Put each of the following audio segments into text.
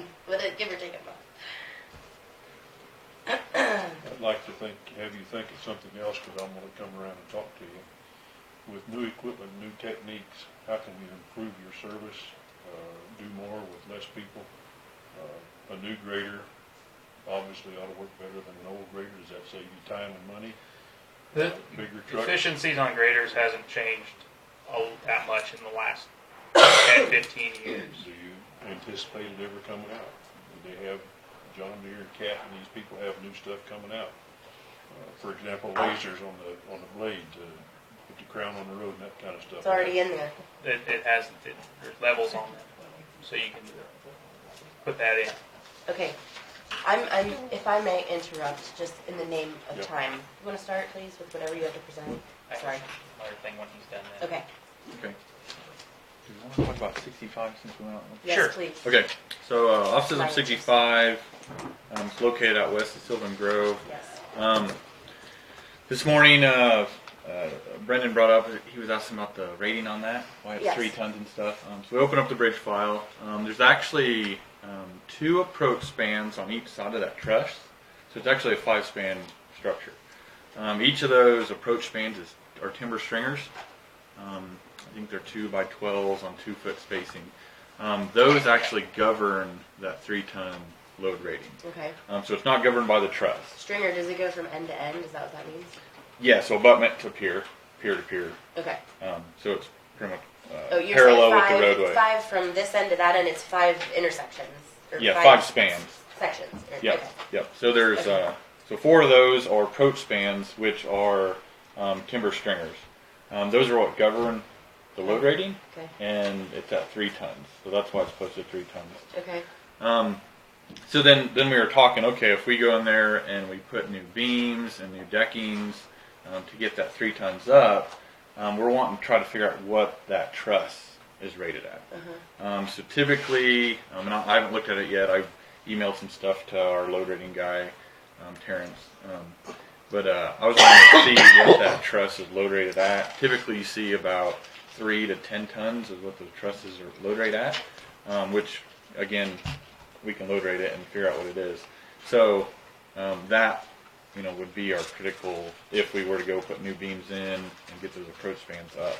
uh, give or take a month. I'd like to think, have you think of something else, because I'm gonna come around and talk to you. With new equipment, new techniques, how can you improve your service, uh, do more with less people? Uh, A new grader obviously ought to work better than an old grader, does that save you time and money? The Bigger truck? efficiencies on graders hasn't changed a- that much in the last 10, 15 years. Do you anticipate it ever coming out? Do they have, John Deere and Cat and these people have new stuff coming out? Uh, For example, lasers on the, on the blade to put the crown on the road and that kind of stuff. It's already in there. It, it has, it, there's levels on them, so you can put that in. Okay, I'm, I'm, if I may interrupt, just in the name Yeah. of time, you wanna start, please, with whatever you have to present? I Sorry, Another thing when he's done that. okay, Okay. Do you want to talk about sixty-five since we went out? Sure. yes, please. Okay, so uh, offices of Right. sixty-five, um, it's located out west of Sylvan Grove. Yes, Um, this morning, uh, uh, Brendan brought up he was asking about the rating on that. Why it's Yes. three tons and stuff. Um, so we open up the bridge file. Um, there's actually um, two approach spans on each side of that truss, so it's actually a five-span structure. Um, each of those approach spans is are timber stringers. Um, I think they're two by twelves on two-foot spacing. Um, those actually govern that three-ton load rating. okay. Um, so it's not governed by the truss. Stringer, does it go from end to end, is that what that means? Yeah, so abutment to pier, pier to pier. Okay, Um, so it's pretty much uh, oh, you're parallel saying with the five, roadway. it's five from this end to that end, it's five intersections? or yeah, five spans. Sections, or- Yep, okay, yep. So there's Okay. uh, so four of those are approach spans, which are um, timber stringers. Um, those are what govern the load rating, okay, and it's at three tons. So that's why it's posted three tons. okay, Um, so then, then we were talking. Okay, if we go in there and we put new beams and new deckings um, to get that three tons up, um, we're wanting to try to figure out what that truss is rated at. Um, so typically, um, and I I haven't looked at it yet. I emailed some stuff to our load rating guy, um, Terrence. Um, but uh, I was wanting to see what that truss is load rated at. Typically, you see about three to ten tons is what the trusses are load rate at, um, which again we can load rate it and figure out what it is. So um, that you know would be our critical if we were to go put new beams in and get those approach spans up.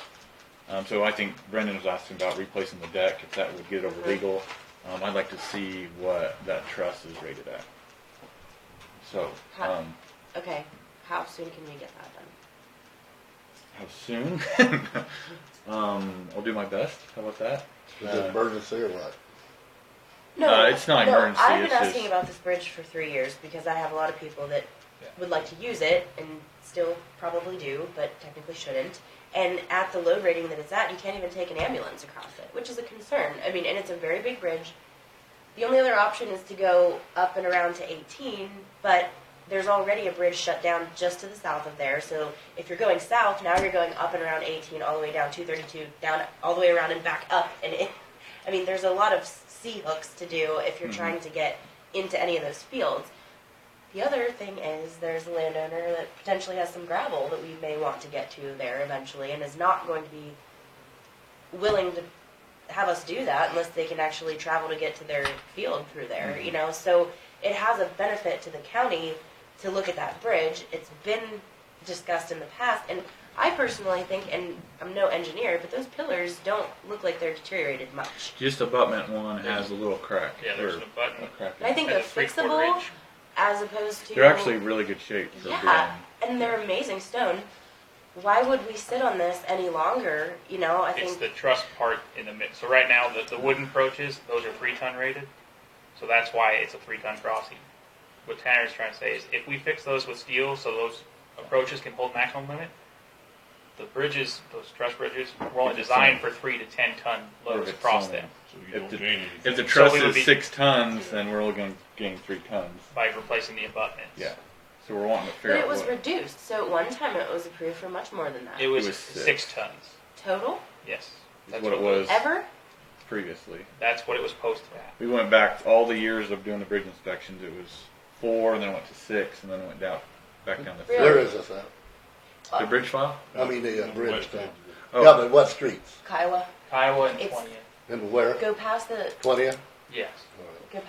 Um, so I think Brendan was asking about replacing the deck if that would get over legal. Um, I'd like to see what that truss is rated at. So um, okay. How soon can we get that done? how soon? um, I'll do my best. How about that? Is it Uh, emergency or what? No, Uh, it's not no, emergency, I've been it's just- asking about this bridge for three years because I have a lot of people that Yeah. would like to use it and still probably do, but technically shouldn't. And at the load rating that it's at, you can't even take an ambulance across it, which is a concern. I mean, and it's a very big bridge. The only other option is to go up and around to 18, but there's already a bridge shut down just to the south of there. So if you're going south, now you're going up and around 18, all the way down 232, down all the way around and back up. And it, I mean, there's a lot of C hooks to do if you're Mhm. trying to get into any of those fields. The other thing is there's a landowner that potentially has some gravel that we may want to get to there eventually and is not going to be willing to have us do that unless they can actually travel to get to their field through there, Mm-hmm. you know? So it has a benefit to the county to look at that bridge. It's been discussed in the past and I personally think, and I'm no engineer, but those pillars don't look like they're deteriorated much. Just abutment one has a little crack. Yeah, there's or an abutment. a crack. I think Has they're a three-quarter fixable inch. as opposed to. They're actually really good shape. for Yeah, being- and they're amazing stone. Why would we sit on this any longer? You know, I It's think the truss part in the mid, so right now, the, the wooden approaches, those are three ton rated, so that's why it's a three ton crossing. What Tanner's trying to say is, if we fix those with steel, so those approaches can hold maximum limit, the bridges, those truss bridges, were only designed for three to ten ton loads Perfect across signal. them, So If you don't the- gain If anything. the truss we would is be- six tons, then we're only going to gain three tons. by replacing the abutments. Yeah. So we're wanting to but figure it out was what. reduced. So at one time it was approved for much more than that. It was was six six. tons, Total? yes. is That's what it was Ever? previously. That's what it was posted at. We went back all the years of doing the bridge inspections. It was four, and then it went to six, and then it went down back down to three. Really? Where is this at? The bridge file? I mean, the uh, In bridge West thing. End. Oh, Yeah, but what streets? Kiowa. Kiowa and It's- twentieth, And where? Go past the Twentieth? yes. All right.